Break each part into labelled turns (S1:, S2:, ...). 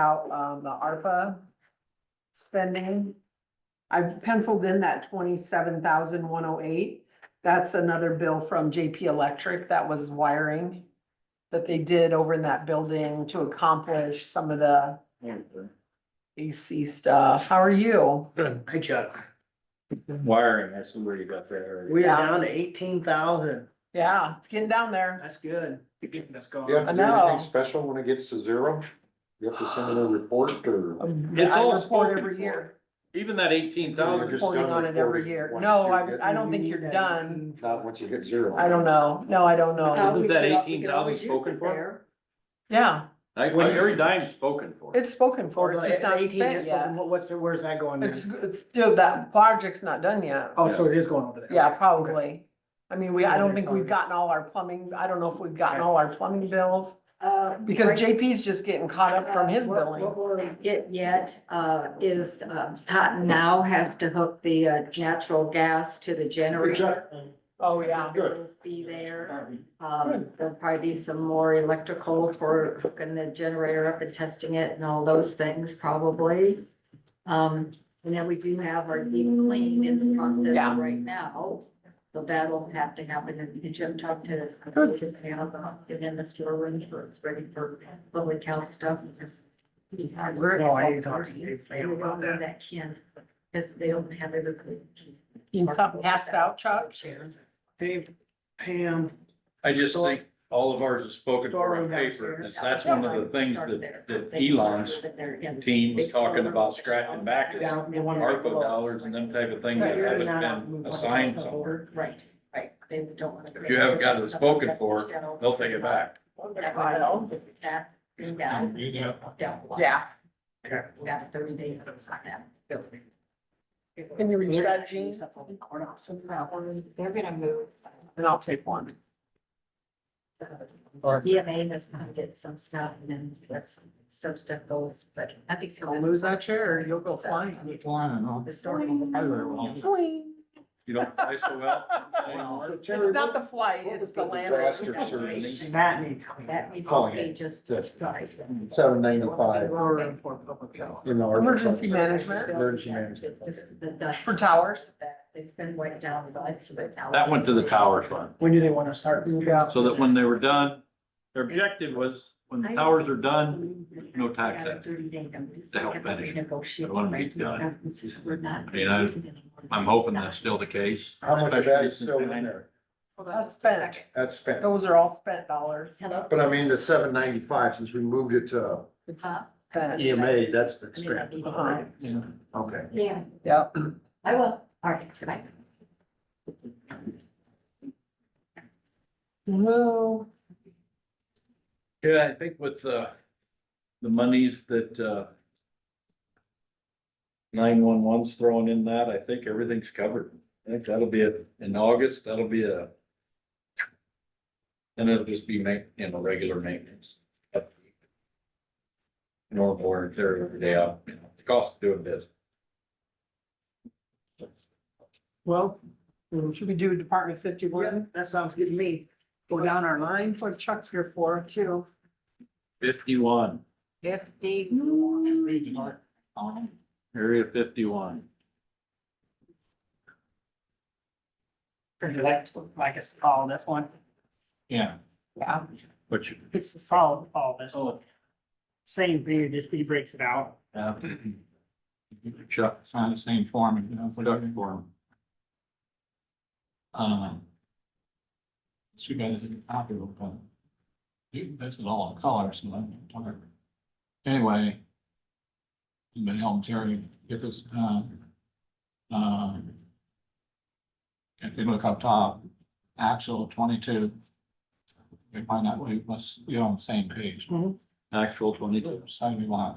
S1: about, um, the ARPA spending. I've penciled in that twenty-seven thousand one oh eight. That's another bill from JP Electric that was wiring that they did over in that building to accomplish some of the AC stuff. How are you?
S2: Good. Hi Chuck.
S3: Wiring, that's where you got there.
S2: We are
S1: Yeah.
S2: down to eighteen thousand.
S1: Yeah, it's getting down there.
S2: That's good. That's gone.
S4: Yeah,
S1: I
S4: do
S1: know.
S4: anything special when it gets to zero? You have to send in a report or?
S3: It's
S1: Um, I
S3: all
S1: report
S3: spoken
S1: every
S3: for.
S1: year.
S3: Even that eighteen
S4: You're
S3: thousand,
S4: just
S1: Reporting
S4: done
S1: on it every
S4: reporting
S1: year.
S4: once
S1: No,
S4: you
S1: I,
S4: get-
S1: I don't think you're done.
S4: Not once you hit zero.
S1: I don't know. No, I don't know.
S3: Uh,
S5: we
S3: Isn't that
S5: could al- we could
S3: 18,000
S5: always use
S3: spoken
S5: it
S3: for?
S5: there.
S1: Oh. Yeah,
S3: like,
S2: When-
S3: every dime's spoken for.
S1: it's spoken for.
S2: Or
S1: It's just not
S2: eighteen
S1: spent
S2: is,
S1: yet.
S2: what- what's, the- where's that going? in?
S1: It's, it's still, that project's not done yet.
S2: Oh, so it is going over there.
S1: Yeah,
S2: Okay.
S1: probably. I mean, we, I don't think we've
S2: Okay.
S1: gotten all our plumbing, I don't know if we've gotten all our plumbing bills,
S5: Uh,
S1: because
S5: right-
S1: JP's just getting caught up from his
S5: uh, what-
S1: billing.
S5: What we'll get yet, uh, is, uh, Totten now has to hook the, uh, natural gas to the
S4: Good
S5: generator.
S4: job.
S1: Oh, yeah.
S4: Good.
S5: It'll Be there. Um, there'll probably be some more electrical for hooking the generator up and testing it and all those things probably. Um, and then we do have our deep clean in the process
S1: Yeah.
S5: right now. So that'll have to happen and did Jim talk to, to Pam about getting in the storeroom for, it's ready for public health stuff. Just-
S2: No, I ain't talking to Pam about
S5: Everyone
S2: that.
S5: That can, because they don't have everything.
S1: You need something passed out, Chuck?
S2: Hey, Pam,
S3: I just think all of ours is spoken for on
S2: Storeroom
S3: paper,
S2: downstairs.
S3: and that's one of the things that, that Elon's team was talking about scratching back is
S2: down the one.
S3: ARPA dollars and them type of things that haven't been assigned somewhere.
S5: Right, right. They don't want to.
S3: If you haven't got it spoken for, They'll take it back.
S5: That, yeah. Yeah.
S1: Yeah.
S5: We got thirty days of those like that.
S1: Can you reach that, Jean?
S5: They're gonna move.
S1: And I'll take one.
S5: EMA has kind of get some stuff and then that's some stuff goes, but I think. so.
S1: Don't lose that chair or you'll go flying.
S5: The story.
S1: Fling.
S3: You don't play so well.
S4: So Terry,
S1: It's not the
S4: what-
S1: flight,
S4: what
S1: it's
S4: was
S1: the
S4: Disaster
S1: landing.
S4: service.
S2: That needs.
S5: That needs to
S4: Calling
S5: be
S4: it.
S5: just.
S4: That's
S5: right.
S4: Seven
S3: oh
S4: ninety-five
S2: Roaring for public health.
S4: in the. ARPA
S1: Emergency
S4: fund.
S1: management.
S4: Emergency management.
S5: Just the dust.
S1: For towers?
S5: That It's been wiped down, but it's.
S3: That went to the tower fund,
S2: When do they want to start?
S3: so that when they were done, their objective was, when the towers are done, no tax act.
S5: To
S3: help finish it.
S5: Negotiate.
S3: But when it's done,
S5: We're not.
S3: I mean, I- I'm hoping that's still the case.
S4: How much of that is still
S3: Especially
S4: in
S3: since then.
S4: there?
S1: That's spent.
S4: That's spent.
S1: Those are all spent dollars.
S5: Hello?
S4: But I mean, the seven ninety-five, since we moved it to
S1: It's
S5: Huh?
S1: spent.
S4: EMA, that's been
S5: I'm in that
S4: spent.
S5: meeting.
S1: Uh-huh.
S4: Okay.
S5: Yeah,
S1: Yep.
S5: I will. All right, goodbye.
S1: Well,
S3: Yeah, I think with uh the monies that, uh, nine-one-one's throwing in that, I think everything's covered. I think that'll be it. In August, that'll be a, and it'll just be ma, you know, regular maintenance. Normal wear and tear every day out, you know, the cost of doing this.
S2: Well,
S1: should we do Department fifty-one?
S2: that sounds good to me. Go down our line.
S1: That's what Chuck's here for, too.
S3: Fifty-one,
S5: Fifty.
S3: area fifty-one.
S2: I guess follow this one.
S3: Yeah.
S1: Yeah,
S3: But you,
S2: It's the solid follow this
S3: oh,
S2: Same thing, just he breaks it out.
S3: Yeah. Chuck, it's on the same form, you know, Chuck form. Um. So you guys did a copy of them. That's it all in color, so I'm tired. Anyway. I've Been helping Terry get this, uh. Um. If you look up top, actual twenty-two. You find out we must, be on the same page.
S2: Mhm.
S3: Actual Mm-hmm. twenty-two. Seventy-one.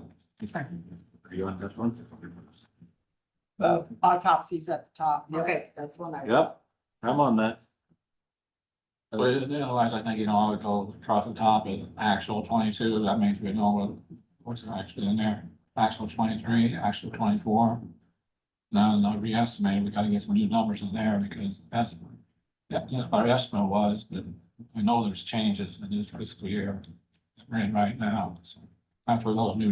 S3: Are you on this one?
S1: the autopsies at the top.
S5: Oh. Okay, that's one I.
S3: Yep, I'm on that.
S6: But otherwise, I think, you know, I would go across the top of actual twenty-two, that means we know what, what's actually in there. Actual twenty-three, actual twenty-four. Now, no re-estimate, we gotta get some new numbers in there because that's, that, that's what our estimate was, but we know there's changes in this fiscal year. We're in right now, so that's where those new